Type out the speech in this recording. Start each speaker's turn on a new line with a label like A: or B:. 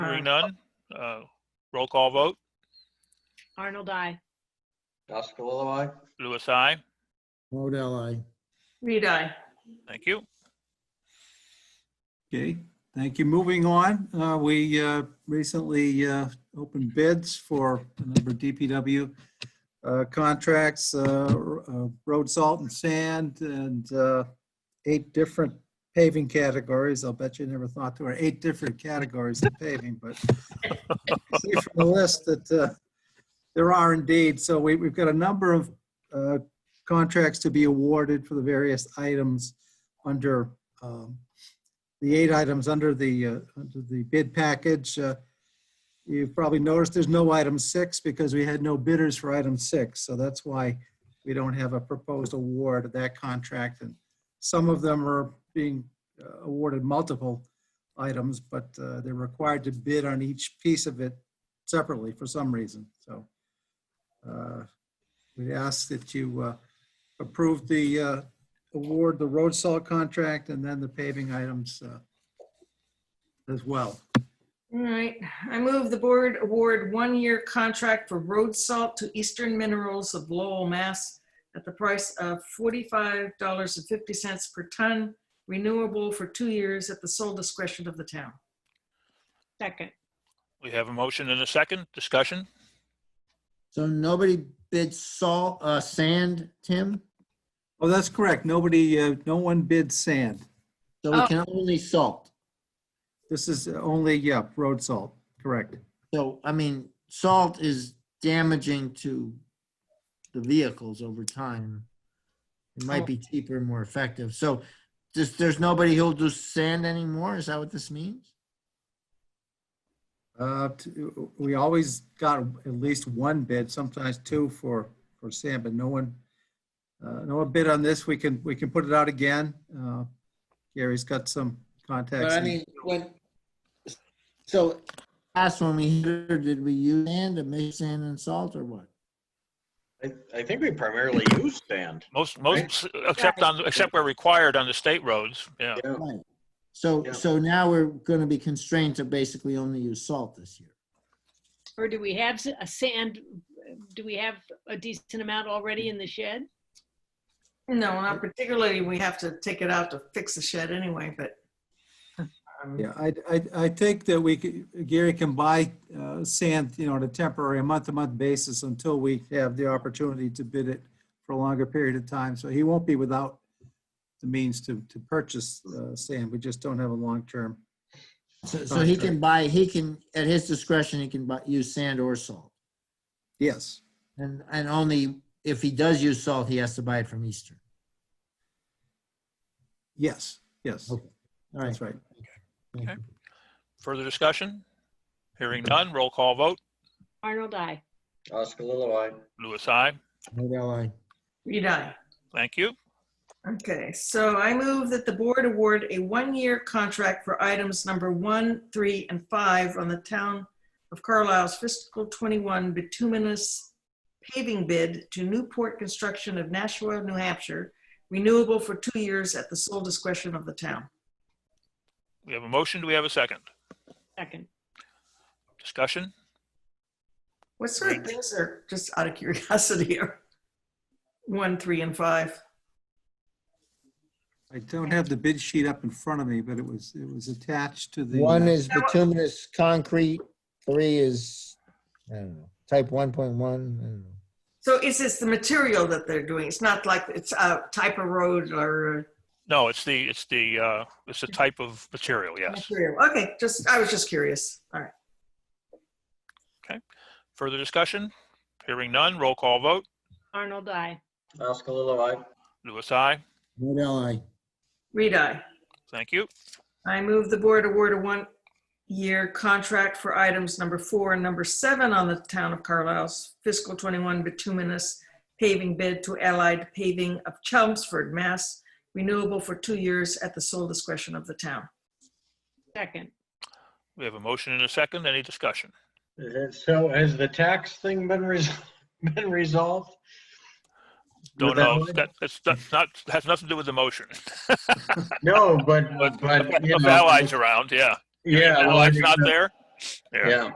A: Hearing none, uh, roll call vote.
B: Arnold, I.
C: Oscar, aye.
A: Louis, I.
D: Model I.
B: Reed, I.
A: Thank you.
E: Okay, thank you. Moving on, uh, we uh, recently uh, opened bids for a number of DPW uh, contracts, uh, r- uh, road salt and sand, and uh, eight different paving categories. I'll bet you never thought there were eight different categories of paving, but I see from the list that uh, there are indeed. So we- we've got a number of uh, contracts to be awarded for the various items under um, the eight items under the, uh, under the bid package. Uh, You've probably noticed there's no item six because we had no bidders for item six. So that's why we don't have a proposed award of that contract. And some of them are being uh, awarded multiple items, but uh, they're required to bid on each piece of it separately for some reason. So uh, we ask that you uh, approve the, uh, award the road salt contract and then the paving items uh, as well.
B: All right, I move the board award one-year contract for road salt to Eastern Minerals of Lowell, Mass. at the price of forty-five dollars and fifty cents per ton, renewable for two years at the sole discretion of the town.
F: Second.
A: We have a motion and a second discussion.
D: So nobody bid salt, uh, sand, Tim?
E: Oh, that's correct. Nobody, uh, no one bid sand.
D: So we
B: Oh.
D: can only salt.
E: This is only, yeah, road salt, correct.
D: So, I mean, salt is damaging to the vehicles over time. It might be cheaper and more effective. So just, there's nobody who'll do sand anymore? Is that what this means?
E: Uh, t- We always got at least one bid, sometimes two for, for sand, but no one, uh, no one bid on this. We can, we can put it out again. Uh, Gary's got some contacts.
D: But I
E: in-
D: mean, when, so last when we here, did we use sand to mix sand and salt or what?
C: I, I think we primarily use sand.
A: Most, most, except on, except where required on the state roads. Yeah.
C: Yeah.
D: Right. So,
C: Yeah.
D: so now we're gonna be constrained to basically only use salt this year.
F: Or do we have s- a sand, do we have a decent amount already in the shed?
B: No, not particularly, we have to take it out to fix the shed anyway, but. um,
E: Yeah, I, I, I think that we, could- Gary can buy uh, sand, you know, on a temporary, a month-to-month basis until we have the opportunity to bid it for a longer period of time. So he won't be without the means to, to purchase uh, sand. We just don't have a long-term.
D: So, so he can buy, he can, at his discretion, he can buy, use sand or salt.
E: Yes.
D: And, and only if he does use salt, he has to buy it from Eastern.
E: Yes, yes,
D: Okay. All right.
E: that's right.
A: Further discussion? Hearing none, roll call vote.
F: Arnold, I.
C: Oscar, aye.
A: Louis, I.
D: Model I.
B: Reed, I.
A: Thank you.
B: Okay, so I move that the board award a one-year contract for items number one, three, and five on the town of Carlisle's fiscal 21 bituminous paving bid to Newport Construction of Nashua, New Hampshire, renewable for two years at the sole discretion of the town.
A: We have a motion. Do we have a second?
F: Second.
A: Discussion?
B: What sort of things are, just out of curiosity, are one, three, and five?
E: I don't have the bid sheet up in front of me, but it was, it was attached to the. uh,
D: One is bituminous concrete, three is, I don't know, type one point one, I don't know.
B: So is this the material that they're doing? It's not like it's a type of road or a
A: No, it's the, it's the, uh, it's the type of material, yes.
B: Material. Okay, just, I was just curious. All right.
A: Further discussion? Hearing none, roll call vote.
F: Arnold, I.
C: Oscar, aye.
A: Louis, I.
D: Model I.
B: Reed, I.
A: Thank you.
B: I move the board award a one-year contract for items number four and number seven on the town of Carlisle's fiscal 21 bituminous paving bid to Allied Paving of Chelmsford, Mass. Renewable for two years at the sole discretion of the town.
F: Second.
A: We have a motion and a second. Any discussion?
C: Is it- So has the tax thing been resolved, been resolved?
A: Don't
C: With that
A: know.
C: one?
A: That, that's that's not, has nothing to do with the motion.
C: No, but,
A: But
C: but, you
A: if
C: know.
A: Allies around, yeah.
C: Yeah. uh,
A: Allies not there? Yeah.
C: Yeah.